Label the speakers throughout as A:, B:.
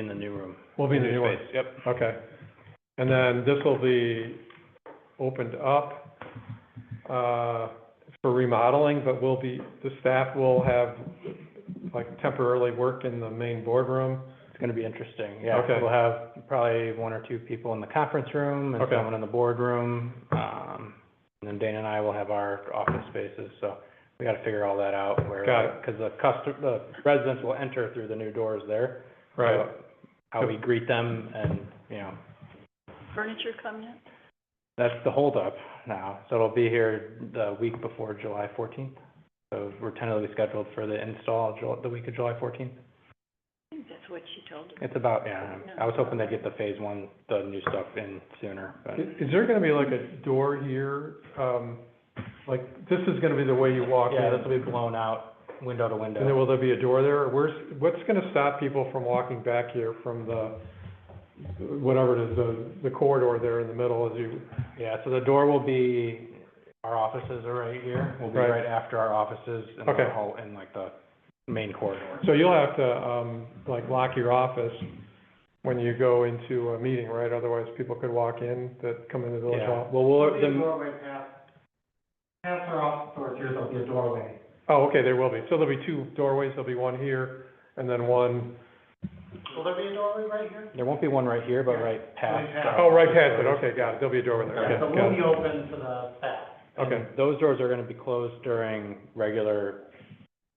A: in the new room.
B: We'll be in the new one.
A: Space, Yep.
B: Okay. And then this will be opened up uh, for remodeling, but will be, the staff will have, like, temporarily work in the main boardroom.
A: It's gonna be interesting, yeah.
B: Okay.
A: We'll have probably one or two people in the conference room and
B: Okay.
A: someone in the boardroom. Um, and then Dana and I will have our office spaces, so we gotta figure all that out where.
B: Got it.
A: Cause the custom, the residents will enter through the new doors there.
B: Right.
A: So How we greet them and, you know,
C: Furniture come yet?
A: that's the holdup now. So it'll be here the week before July fourteenth. So we're tentatively scheduled for the install Ju- the week of July fourteenth.
C: I think that's what she told us.
A: It's about, yeah, I was hoping they'd get the phase one, the new stuff in sooner, but.
B: Is is there gonna be like a door here? um, Like, this is gonna be the way you walk in?
A: Yeah, this will be blown out, window to
B: And then
A: window.
B: will there be a door there? Where's, what's gonna stop people from walking back here from the, whatever it is, the, the corridor there in the middle as you,
A: Yeah, so the door will be, our offices are right here, will be
B: Right.
A: right after our offices in
B: Okay.
A: the hall, in like the main corridor.
B: so you'll have to, um, like, lock your office when you go into a meeting, right? Otherwise, people could walk in that come into the village
A: Yeah,
B: hall.
A: well, we'll,
D: There'll be a
A: the,
D: doorway past, past our office doors, here, there'll be a doorway.
B: Oh, okay, there will be. So there'll be two doorways, there'll be one here and then one,
D: Will there be a doorway right here?
A: there won't be one right here, but right past.
D: Right past.
B: oh, right past it, okay, got it. There'll be a doorway there,
D: Yeah, So
B: okay,
D: we'll
B: got
D: be
B: it.
D: open to the staff.
A: And
B: Okay.
A: Those doors are gonna be closed during regular,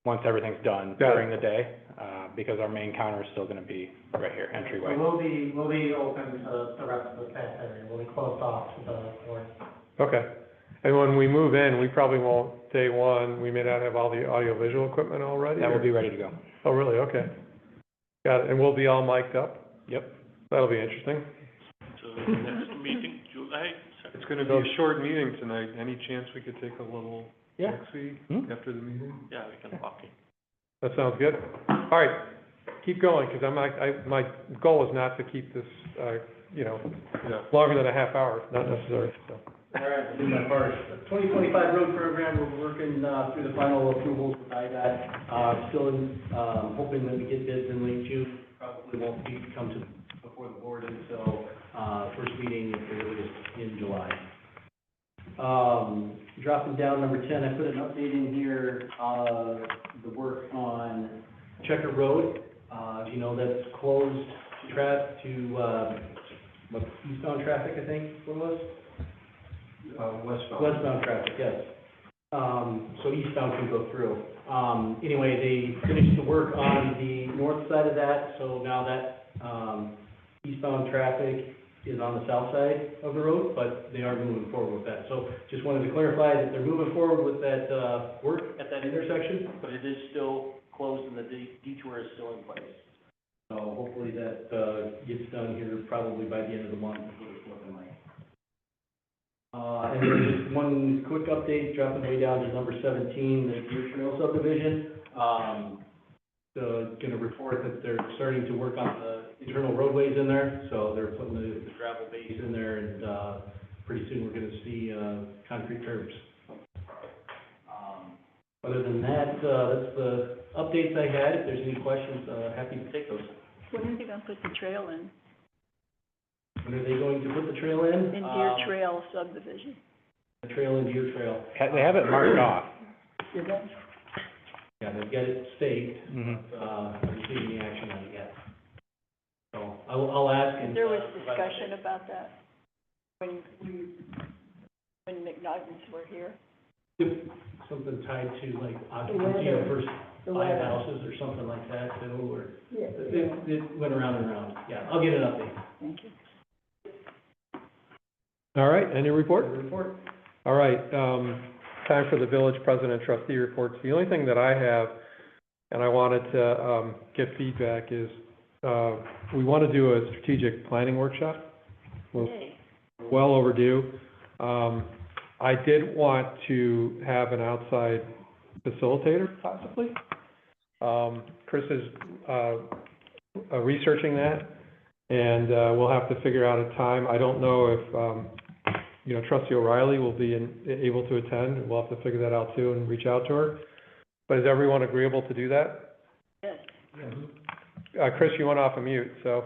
A: once everything's done,
B: Got it.
A: during the day, uh, because our main counter is still gonna be right here, entryway.
D: So we'll be, we'll be open to the rest of the staff area, we'll be closed off to the board.
B: Okay. And when we move in, we probably won't, day one, we may not have all the audiovisual equipment already?
A: That
B: or-
A: will be ready to go.
B: Oh, really? Okay. Got it. And we'll be all mic'd up?
A: Yep.
B: That'll be interesting.
E: So the next meeting, July,
F: It's gonna be a short meeting tonight. Any chance we could take a little
A: Yeah.
F: taxi
A: Hmm?
F: after the meeting?
E: yeah, we can walk in.
B: That sounds good. All right, keep going, because I'm, not- I, my goal is not to keep this, uh, you know,
F: Yeah.
B: longer than a half hour, It's not necessary, so.
D: All right, do that first. The 2025 road program, we're working uh, through the final approvals with IDOT. Uh, Still in, um, hoping that we get bids in late June. Probably won't be, come to, before the board until uh, first meeting, at the earliest, in July. Um, Dropping down number 10, I put an update in here, uh, the work on Checker Road. Uh, As you know, that's closed to tra, to, uh, what, eastbound traffic, I think, what was? Westbound traffic, yes. Um, so eastbound can go through. Um, anyway, they finished the work on the north side of that, so now that, um, eastbound traffic is on the south side of the road, but they are moving forward with that. So just wanted to clarify that they're moving forward with that, uh, work at that intersection. But it is still closed and the detour is still in place. So hopefully that, uh, gets done here probably by the end of the month, is what it's looking like. Uh, And then just one quick update, dropping way down to number 17, the Deer Trail subdivision. Um, So going to report that they're starting to work on the internal roadways in there, so they're putting the the gravel base in there, and uh, pretty soon we're going to see uh, concrete curbs. Um, Other than that, uh, that's the updates I had. If there's any questions, uh, happy to take those.
C: When are they gonna put the trail in?
D: When are they going to put the trail in?
C: In Deer
D: Um,
C: Trail subdivision?
D: The trail in Deer Trail.
A: Ha- They have it marked off.
D: Yeah, they've got it staked.
A: Mm-hmm.
D: uh, received any action on it yet. So I'll, I'll ask and.
C: There was
D: uh, provide an
C: discussion about that when, we- when McNuggets were here.
D: update. Something tied to like occupancy of first five houses or something like that too, or, it, it went around and around. Yeah, I'll get an update.
C: Thank you.
B: All right, any report?
D: Report.
B: All right, um, time for the village president trustee reports. The only thing that I have, and I wanted to, um, get feedback is, uh, we want to do a strategic planning workshop. Well-
C: Yay.
B: well overdue. Um, I did want to have an outside facilitator possibly. Um, Chris is, uh, uh, researching that and, uh, we'll have to figure out a time. I don't know if, um, you know, trustee O'Reilly will be in, able to attend. We'll have to figure that out too and reach out to her. But is everyone agreeable to do that?
C: Yes.
B: Uh, Chris, you went off of mute, so.